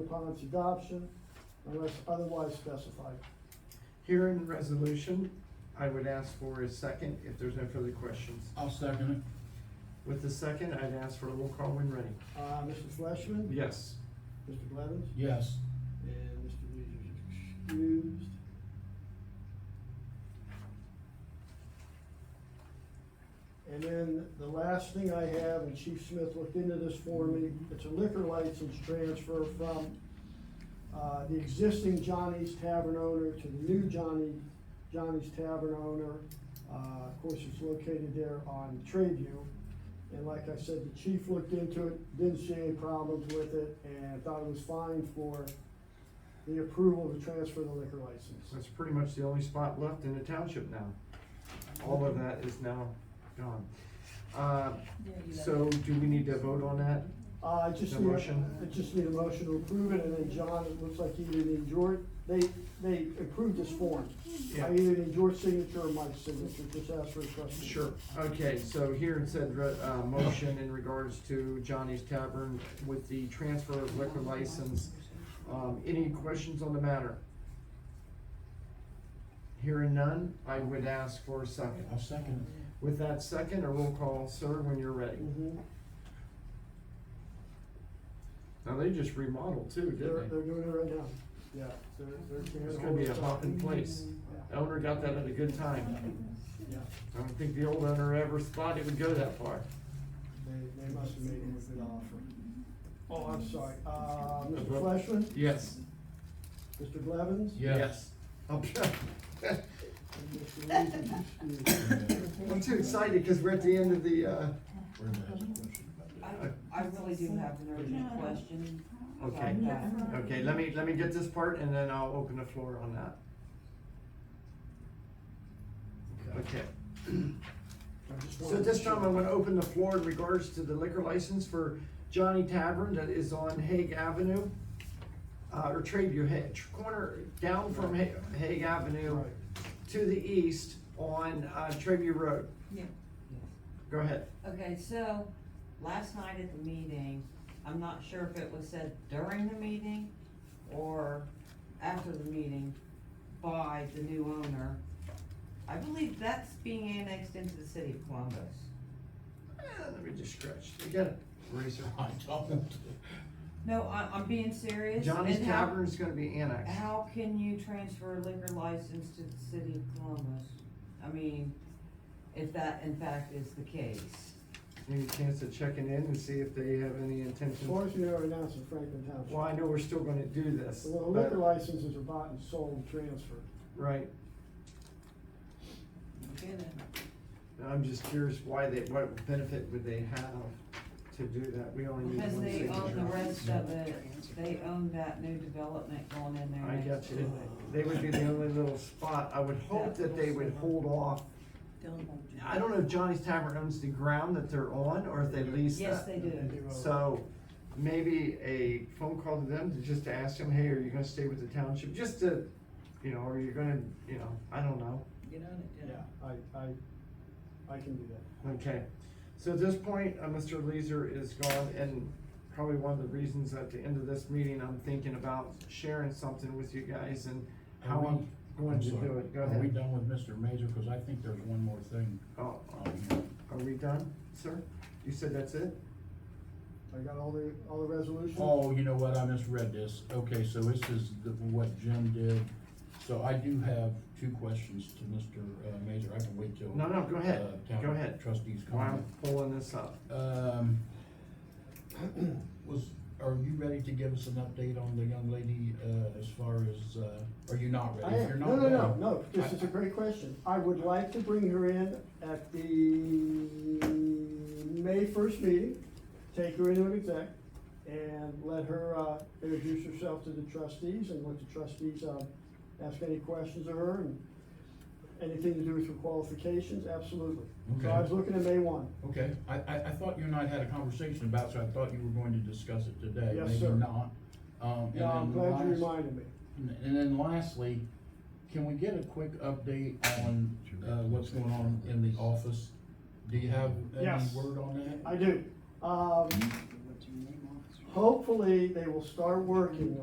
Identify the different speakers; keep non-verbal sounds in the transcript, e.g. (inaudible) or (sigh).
Speaker 1: upon its adoption unless otherwise specified.
Speaker 2: Here in resolution, I would ask for a second if there's no further questions.
Speaker 3: I'll second
Speaker 2: With the second, I'd ask for a roll call when ready.
Speaker 1: Uh, Mr. Fleishman?
Speaker 2: Yes.
Speaker 1: Mr. Blevins?
Speaker 3: it. Yes.
Speaker 1: And Mr. Reed is excused. And then the last thing I have, and Chief Smith looked into this for me, it's a liquor license transfer from, uh, the existing Johnny's Tavern owner to the new Johnny, Johnny's Tavern owner. Uh, of course, it's located there on Tradeview. And like I said, the chief looked into it, didn't see any problems with it, and thought it was fine for the approval to transfer the liquor license.
Speaker 2: That's pretty much the only spot left in the township now. All of that is now gone. Uh, So do we need to vote on that?
Speaker 1: Uh, I just
Speaker 2: The
Speaker 1: need,
Speaker 2: motion.
Speaker 1: I just need a motion to approve it, and then John, it looks like either need your, they, they approved this form.
Speaker 2: Yeah.
Speaker 1: I either need your signature or my signature, just ask for a question.
Speaker 2: Sure, okay, so here it said, uh, motion in regards to Johnny's Tavern with the transfer of liquor license. Um, any questions on the matter? Hearing none, I would ask for a second.
Speaker 3: I'll second
Speaker 2: With that second, a roll call, sir, when you're ready.
Speaker 1: Mhm.
Speaker 2: Now, they just remodeled too,
Speaker 1: They're,
Speaker 2: didn't
Speaker 1: they're doing it right now, yeah, they're,
Speaker 2: they?
Speaker 1: they're.
Speaker 2: It's gonna be a hop in place.
Speaker 1: Yeah,
Speaker 2: Owner got that at a good time.
Speaker 1: yeah,
Speaker 2: I don't think the old owner ever thought it would go that far.
Speaker 1: they, they must have made him a good offer. Oh, I'm sorry, uh, Mr. Fleshman,
Speaker 2: Yes.
Speaker 1: Mr. Blevins?
Speaker 3: Yes.
Speaker 2: Okay. (laughs)
Speaker 1: And Mr. Reed is excused.
Speaker 2: I'm too excited because we're at the end of the, uh,
Speaker 3: it. Brenda has a question
Speaker 4: I,
Speaker 3: about
Speaker 4: I really do have an urgent question.
Speaker 2: Okay.
Speaker 4: about that.
Speaker 2: okay, let me, let me get this part and then I'll open the floor on that. Okay.
Speaker 1: I just
Speaker 2: So
Speaker 1: wanted
Speaker 2: at
Speaker 1: to
Speaker 2: this time,
Speaker 1: share.
Speaker 2: I'm gonna open the floor in regards to the liquor license for Johnny Tavern that is on Hague Avenue. Uh, or Tradeview, Ha- tr- corner down from Ha- Hague Avenue
Speaker 1: Right.
Speaker 2: to the east on, uh, Tradeview Road.
Speaker 4: Yeah.
Speaker 2: Go ahead.
Speaker 4: Okay, so, last night at the meeting, I'm not sure if it was said during the meeting or after the meeting by the new owner. I believe that's being annexed into the city of Columbus.
Speaker 2: Eh, Let me just scratch. You got it. Razor.
Speaker 3: it. I don't.
Speaker 4: No, I, I'm being serious.
Speaker 2: Johnny's
Speaker 4: And how-
Speaker 2: Tavern is gonna be annexed.
Speaker 4: How can you transfer a liquor license to the city of Columbus? I mean, if that in fact is the case.
Speaker 2: Any chance of checking in and see if they have any
Speaker 1: As
Speaker 2: intention?
Speaker 1: far as we know right now, it's in Franklin Township.
Speaker 2: Well, I know we're still gonna do this.
Speaker 1: Well, the
Speaker 2: but-
Speaker 1: liquor licenses are bought and sold and transferred.
Speaker 2: Right.
Speaker 4: Okay, then.
Speaker 2: And I'm just curious why they, what benefit would they have to do that? We only need
Speaker 4: Because
Speaker 2: one
Speaker 4: they own the
Speaker 2: signature.
Speaker 4: rest of it, they own that new development going in there
Speaker 2: I
Speaker 4: next
Speaker 2: get
Speaker 4: to it.
Speaker 2: you. They would be the only little spot. I would hope that they would hold off. I don't know if Johnny's Tavern owns the ground that they're on or if they lease that.
Speaker 4: Yes, they do.
Speaker 1: They do.
Speaker 2: So maybe a phone call to them to just to ask them, hey, are you gonna stay with the township? Just to, you know, or you're gonna, you know, I don't know.
Speaker 1: Yeah, I, I, I can do that.
Speaker 2: Okay, so at this point, uh, Mr. Leeser is gone, and probably one of the reasons at the end of this meeting, I'm thinking about sharing something with you guys and how
Speaker 3: Are
Speaker 2: I'm
Speaker 3: we-
Speaker 2: going
Speaker 3: I'm
Speaker 2: to
Speaker 3: sorry.
Speaker 2: do it, go
Speaker 3: Are we
Speaker 2: ahead.
Speaker 3: done with Mr. Major? Cause I think there's one more thing
Speaker 2: Oh,
Speaker 3: on here.
Speaker 2: are we done, sir? You said that's it?
Speaker 1: I got all the, all the resolutions?
Speaker 3: Oh, you know what, I misread this. Okay, so this is the, what Jim did. So I do have two questions to Mr. uh, Major. I can wait till.
Speaker 2: No, no, go ahead,
Speaker 3: uh, town
Speaker 2: go ahead.
Speaker 3: Trustees
Speaker 2: While
Speaker 3: comment.
Speaker 2: I'm pulling this up.
Speaker 3: Um, (clears throat) was, are you ready to give us an update on the young lady, uh, as far as, uh, are you not
Speaker 1: I
Speaker 3: ready? If you're
Speaker 1: am, no,
Speaker 3: not
Speaker 1: no, no,
Speaker 3: ready-
Speaker 1: no, this is a great question. I would like to bring her in at the May first meeting, take her into an exec, and let her, uh, introduce herself to the trustees and let the trustees, uh, ask any questions of her and anything to do with her qualifications, absolutely. So I was
Speaker 3: Okay.
Speaker 1: looking at May one.
Speaker 3: Okay, I, I, I thought you and I had a conversation about, it, so I thought you were going to discuss it today.
Speaker 1: Yes,
Speaker 3: Maybe
Speaker 1: sir.
Speaker 3: not. Um, and
Speaker 1: Yeah, I'm
Speaker 3: then the
Speaker 1: glad you
Speaker 3: last-
Speaker 1: reminded me.
Speaker 3: And and then lastly, can we get a quick update on, uh, what's going on in the office? Do you have any
Speaker 1: Yes.
Speaker 3: word on that?
Speaker 1: I do. Um, Hopefully, they will start working